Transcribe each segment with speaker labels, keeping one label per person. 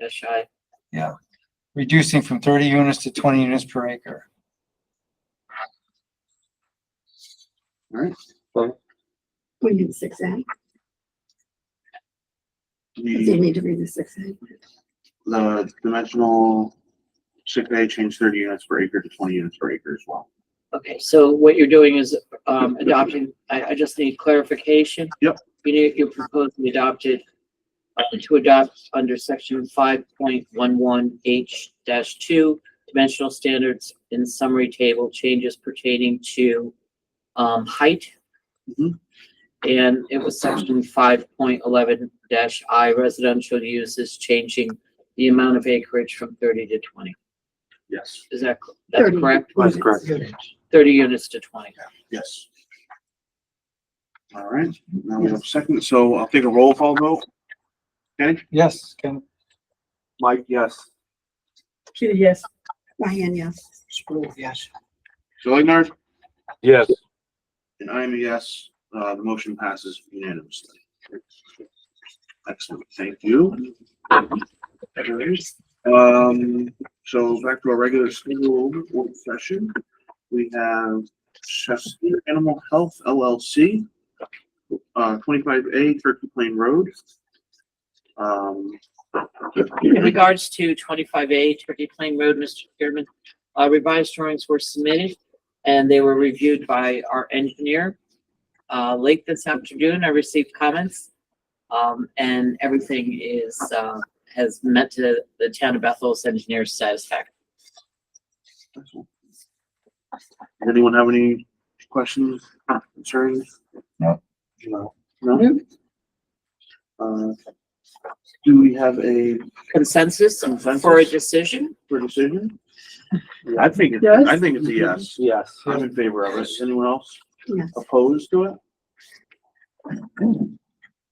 Speaker 1: just shy.
Speaker 2: reducing from thirty units to twenty units per acre.
Speaker 3: We need six A. Do
Speaker 4: The,
Speaker 3: you need to read the six A?
Speaker 4: the dimensional six A change thirty units per acre to twenty units per acre as well.
Speaker 1: Okay, so what you're doing is, um, adopting, I, I just need clarification.
Speaker 4: Yep.
Speaker 1: You need, you're proposing adopted, uh, to adopt under section five point one one H dash two, dimensional standards in summary table changes pertaining to, um, height.
Speaker 4: Mhm.
Speaker 1: And it was section five point eleven dash I residential uses changing the amount of acreage from thirty to twenty.
Speaker 4: Yes.
Speaker 1: Is that, that's
Speaker 3: 30
Speaker 1: correct?
Speaker 4: That's correct.
Speaker 3: units.
Speaker 1: thirty units to twenty.
Speaker 4: Yes. All right, now we have second, so I'll take a roll call vote. Okay,
Speaker 2: Yes, Ken,
Speaker 4: Mike, yes.
Speaker 5: Kitty, yes.
Speaker 3: Diane, yes.
Speaker 5: Spru, yes.
Speaker 4: Zoidnar,
Speaker 6: Yes,
Speaker 4: and I am a yes. Uh, the motion passes unanimously. Excellent, thank you. Um, so back to our regular scheduled work session. We have Chester Animal Health LLC, uh, twenty-five A Turkey Plain Road. Um.
Speaker 1: In regards to twenty-five A Turkey Plain Road, Mr. Chairman, uh, revised drawings were submitted and they were reviewed by our engineer. Uh, late this afternoon, I received comments. Um, and everything is, uh, has met to the town of Bethel's engineer's satisfaction.
Speaker 4: Does anyone have any questions, concerns?
Speaker 2: No.
Speaker 4: No. No? Uh, do we have a
Speaker 1: Consensus for a
Speaker 4: Consensus?
Speaker 1: decision?
Speaker 4: for decision? I think, it-
Speaker 5: Yes.
Speaker 4: I think it's a yes.
Speaker 6: yes.
Speaker 4: I'm in favor of it. Anyone else
Speaker 3: Yes.
Speaker 4: opposed to it?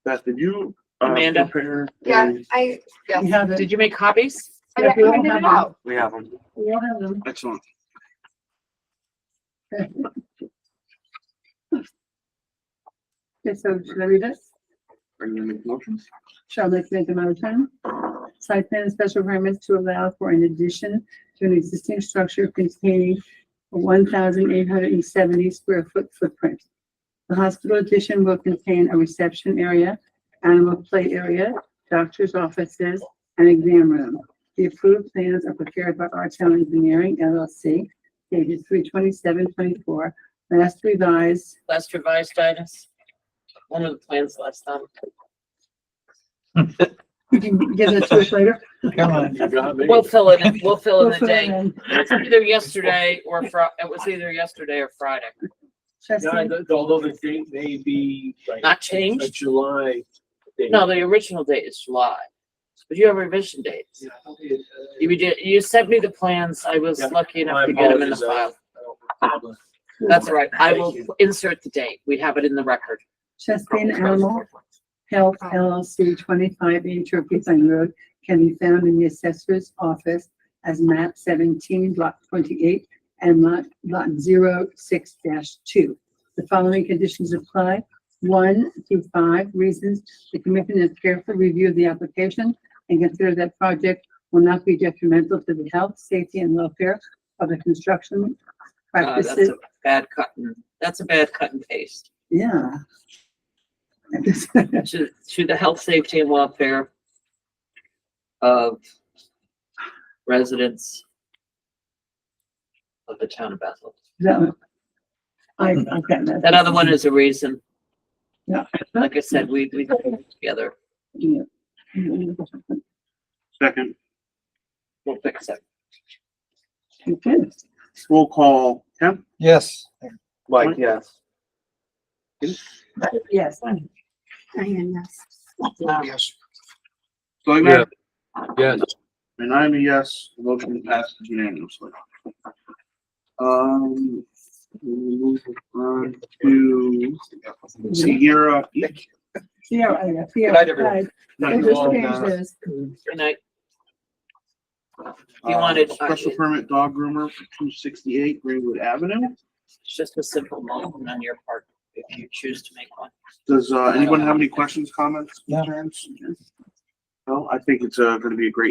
Speaker 4: Beth, did you? uh,
Speaker 1: Amanda?
Speaker 4: prepare a-
Speaker 7: Yeah, I,
Speaker 5: We
Speaker 7: yes,
Speaker 5: have it.
Speaker 1: Did you make copies?
Speaker 7: I I
Speaker 5: If you don't
Speaker 7: printed
Speaker 5: have
Speaker 7: it
Speaker 5: it-
Speaker 7: out.
Speaker 4: We have them.
Speaker 5: We all have them.
Speaker 4: Excellent.
Speaker 5: Okay, so should I read this?
Speaker 4: Are you gonna make motions?
Speaker 5: Shall I make them out of time? Site plan and special permits to allow for an addition to an existing structure containing a one thousand eight hundred and seventy square foot footprint. The hospital addition will contain a reception area, animal play area, doctor's offices, and exam room. The approved plans are prepared by Artel Engineering LLC, dated three twenty-seven twenty-four, last revised
Speaker 1: Last revised items? One of the plans last time.
Speaker 5: You can give it to us later.
Speaker 2: come on.
Speaker 1: We'll fill it in, we'll fill in
Speaker 5: We'll
Speaker 1: the
Speaker 5: fill it
Speaker 1: day.
Speaker 5: in.
Speaker 1: It's either yesterday or Fri- it was either yesterday or Friday.
Speaker 5: Trustee,
Speaker 6: Although the date may be. like,
Speaker 1: Not
Speaker 6: a
Speaker 1: changed?
Speaker 6: July. date.
Speaker 1: No, the original date is July. But you have revision dates.
Speaker 6: Yeah, it, uh,
Speaker 1: You did, you sent me the plans. I was
Speaker 6: Yeah,
Speaker 1: lucky
Speaker 6: my
Speaker 1: enough to get them in the
Speaker 6: apologies, I-
Speaker 1: file.
Speaker 6: I don't remember.
Speaker 1: That's all right. I will
Speaker 6: Thank you.
Speaker 1: insert the date. We have it in the record.
Speaker 5: Trustee and Animal Health LLC twenty-five in Turkey Plain Road can be found in the assessor's office as map seventeen, lot twenty-eight, and lot, lot 6 two. The following conditions apply. One through five reasons, the commission has carefully reviewed the application and consider that project will not be detrimental to the health, safety, and welfare of the construction
Speaker 1: Uh,
Speaker 5: practices.
Speaker 1: That's a bad cut and, that's a bad cut and paste.
Speaker 5: Yeah.
Speaker 1: To, to the health, safety and welfare of residents of the town of Bethel.
Speaker 5: No. I,
Speaker 6: Hmm.
Speaker 5: I've gotten that.
Speaker 1: That other one is a reason.
Speaker 5: Yeah.
Speaker 1: Like I said, we, we put it together,
Speaker 5: Yeah.
Speaker 4: Second,
Speaker 1: we'll fix it.
Speaker 5: Okay.
Speaker 4: roll call, Kemp?
Speaker 2: Yes,
Speaker 4: Mike,
Speaker 6: yes.
Speaker 5: Yes.
Speaker 3: Diane, yes.
Speaker 5: Yes.
Speaker 4: Zoidner?
Speaker 6: Yes.
Speaker 4: And I'm a yes, the motion passes unanimously. Um, we move on to Sierra Peak.
Speaker 5: Sierra, yeah, Sierra.
Speaker 6: night, everyone.
Speaker 5: I just changed this.
Speaker 1: And I,
Speaker 4: Uh,
Speaker 1: You wanted- uh,
Speaker 4: Special permit dog groomer for two sixty-eight Greenwood Avenue.
Speaker 1: it's just a simple motion on your part, if you choose to make one.
Speaker 4: Does, uh, anyone have any questions, comments,
Speaker 2: No.
Speaker 4: concerns? Well, I think it's, uh, gonna be a great